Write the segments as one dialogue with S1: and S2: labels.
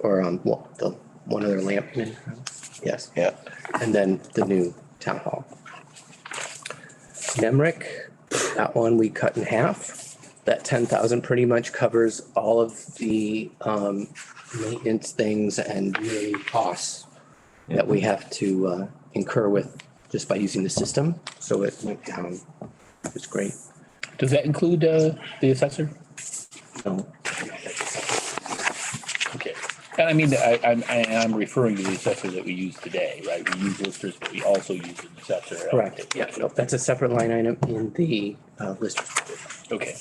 S1: or on wa- the, one other lamp. Yes,
S2: Yeah.
S1: and then the new town hall. Nemrick, that one we cut in half. That ten thousand pretty much covers all of the um maintenance things and yearly costs that we have to uh incur with just by using the system, so it went down. It's great.
S3: Does that include uh, the assessor?
S1: So
S3: Okay. And I mean, I, I'm, I am referring to the assessor that we use today, right? We use listers, but we also use an assessor.
S1: Correct, yeah, no, that's a separate line item in the uh list.
S3: Okay.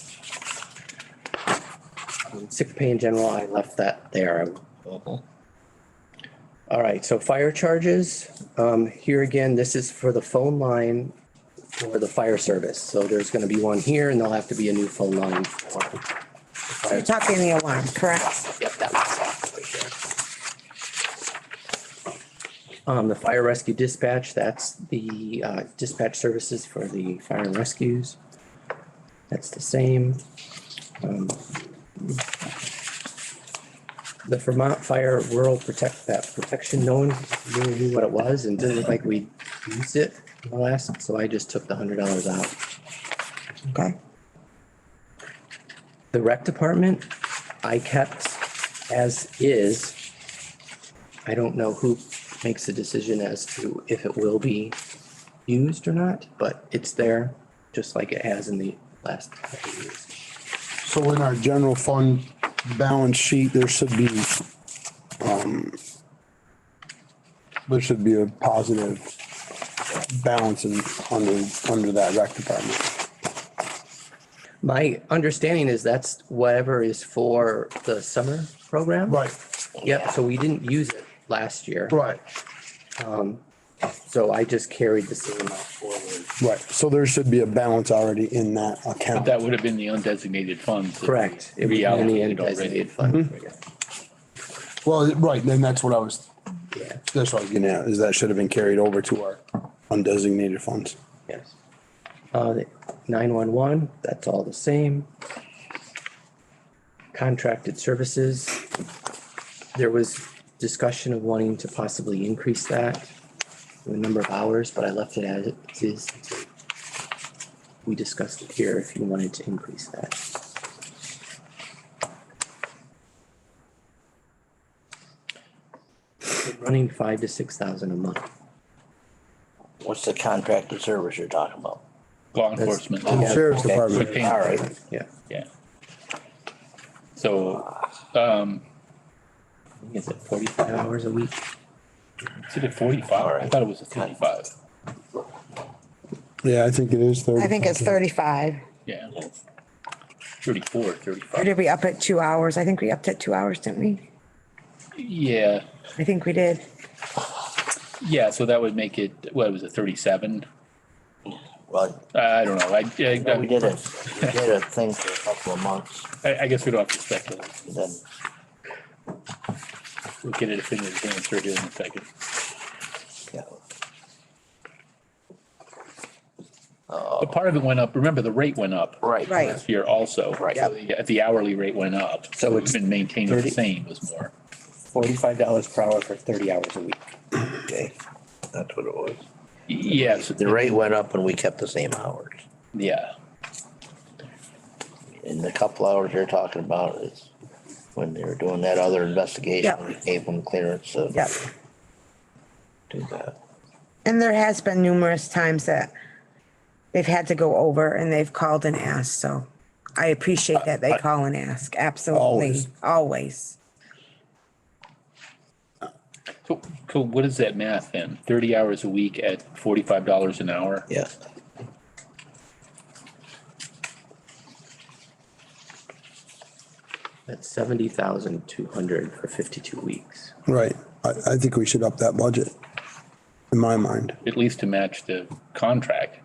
S1: Sick pay in general, I left that there.
S2: Local.
S1: All right, so fire charges, um, here again, this is for the phone line for the fire service. So there's gonna be one here and there'll have to be a new phone line. for-
S4: You're talking the alarm, correct?
S1: Yep, that one's right there. Um, the fire rescue dispatch, that's the uh, dispatch services for the fire and rescues. That's the same. Um, The Vermont Fire Rural Protect, that protection, no one really knew what it was and didn't look like we used it in the last, so I just took the hundred dollars out.
S4: Okay.
S1: The rec department, I kept as is. I don't know who makes the decision as to if it will be used or not, but it's there, just like it has in the last. couple of years.
S5: So in our general fund balance sheet, there should be, um, there should be a positive balance in, under, under that rec department.
S1: My understanding is that's whatever is for the summer program. Yep, so we didn't use it last year,
S5: right,
S1: so I just carried the same amount forward.
S5: right. So there should be a balance already in that
S3: But
S5: account.
S3: that would have been the undesignated funds. that we
S1: Correct. It was in the
S3: Reallocated
S1: end
S3: already.
S1: designated fund.
S5: Well, right, then that's what I was,
S1: Yeah,
S5: that's what I was getting at, is that should have been carried over to our undesignated funds.
S1: Yes. Uh, nine-one-one, that's all the same. Contracted services. There was discussion of wanting to possibly increase that, the number of hours, but I left it as it is. We discussed it here if you wanted to increase that. Running five to six thousand a month.
S2: What's the contracted service you're talking about?
S3: Law enforcement.
S1: Yeah.
S5: Sheriff's
S2: Okay.
S3: We're
S5: Department,
S3: paying-
S2: All right,
S1: Yeah.
S3: Yeah. So, um,
S1: Is it forty-five hours a week?
S3: is it a forty-five? I thought it was a thirty-five.
S5: yeah, I think it is thirty.
S4: I think it's thirty-five.
S3: Yeah. Thirty-four,
S4: Or
S3: thirty-five.
S4: did we up at two hours? I think we upped at two hours, didn't we?
S3: Yeah,
S4: I think we did.
S3: yeah. So that would make it, what, was it thirty-seven?
S2: well,
S3: Uh, I don't know. I, I-
S2: we did it, we did a thing for a couple of months,
S3: I, I guess we don't have to speculate.
S2: then,
S3: We'll get it definitive answer here in a second.
S2: yeah.
S3: But part of it went up, remember, the rate went up.
S2: Oh. Right.
S4: Right.
S3: Last year also.
S2: Right.
S3: So The the hourly rate went up.
S1: So
S3: So
S1: it's
S3: it's been maintained the
S1: 30?
S3: same was more.
S1: forty-five dollars per hour for thirty hours a week.
S2: Okay, that's what it was.
S3: Yes,
S2: The rate went up and we kept the same hours.
S3: yeah.
S2: And the couple hours you're talking about is when they were doing that other investigation,
S4: Yeah.
S2: we gave them clearance to
S4: Yep.
S2: do that.
S4: And there has been numerous times that they've had to go over and they've called and asked, so I appreciate that they call and ask, absolutely,
S5: Always.
S4: always.
S3: So, so what is that math then? Thirty hours a week at forty-five dollars an hour?
S2: Yeah.
S1: That's seventy thousand two hundred for fifty-two weeks.
S5: Right, I, I think we should up that budget, in my mind.
S3: At least to match the contract,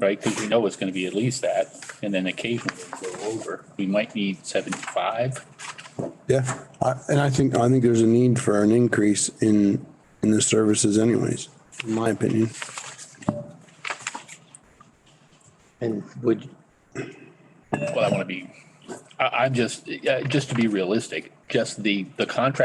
S3: right? Because we know it's gonna be at least that, and then occasionally we'll go over. We might need seventy-five.
S5: Yeah, I, and I think, I think there's a need for an increase in, in the services anyways, in my opinion.
S1: And would,
S3: Well, I wanna be, I, I'm just, uh, just to be realistic, just the, the contract